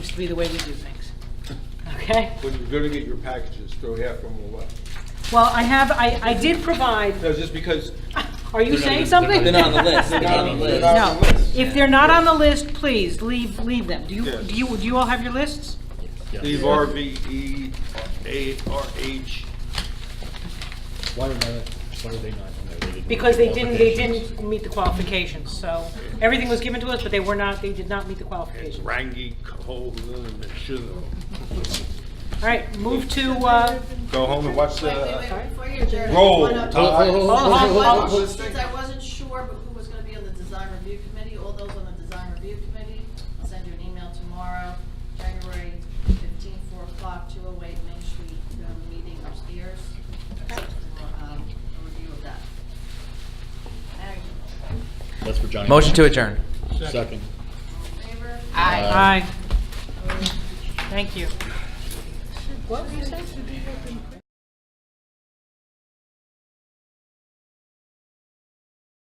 be the way we do things. Okay? When you're gonna get your packages, throw half of them away. Well, I have, I, I did provide, No, just because are you They're not saying even- something? They're not on the list, they're they're not on the they're list. not on No, the list. if they're not on the list, please, leave, leave them. Do you, Yes. do you, do you all have your lists? Leave RVE, E ARH, Why were they, why were they not on there? didn't meet Because the they didn't, they qualifications. didn't meet the qualifications, so everything was given to us, but they were not, they did not meet the qualifications. All Rangi, Cohola, and Chisholm. right, move to, uh, Go home and watch Wait, wait, the, wait, before you adjourn, I Roll. wanna- Hold, hold, hold, hold, I hold, wasn't- hold. Since I wasn't sure but who was gonna be on the design review committee, all those on the design review committee, I'll send you an email tomorrow, January fifteenth, four o'clock, two oh eight Main Street, um, meeting upstairs. For, um, a review of that. There you go. That's for Johnny. Motion to adjourn. Second. All in Favor? Aye. aye, thank you. What were you saying?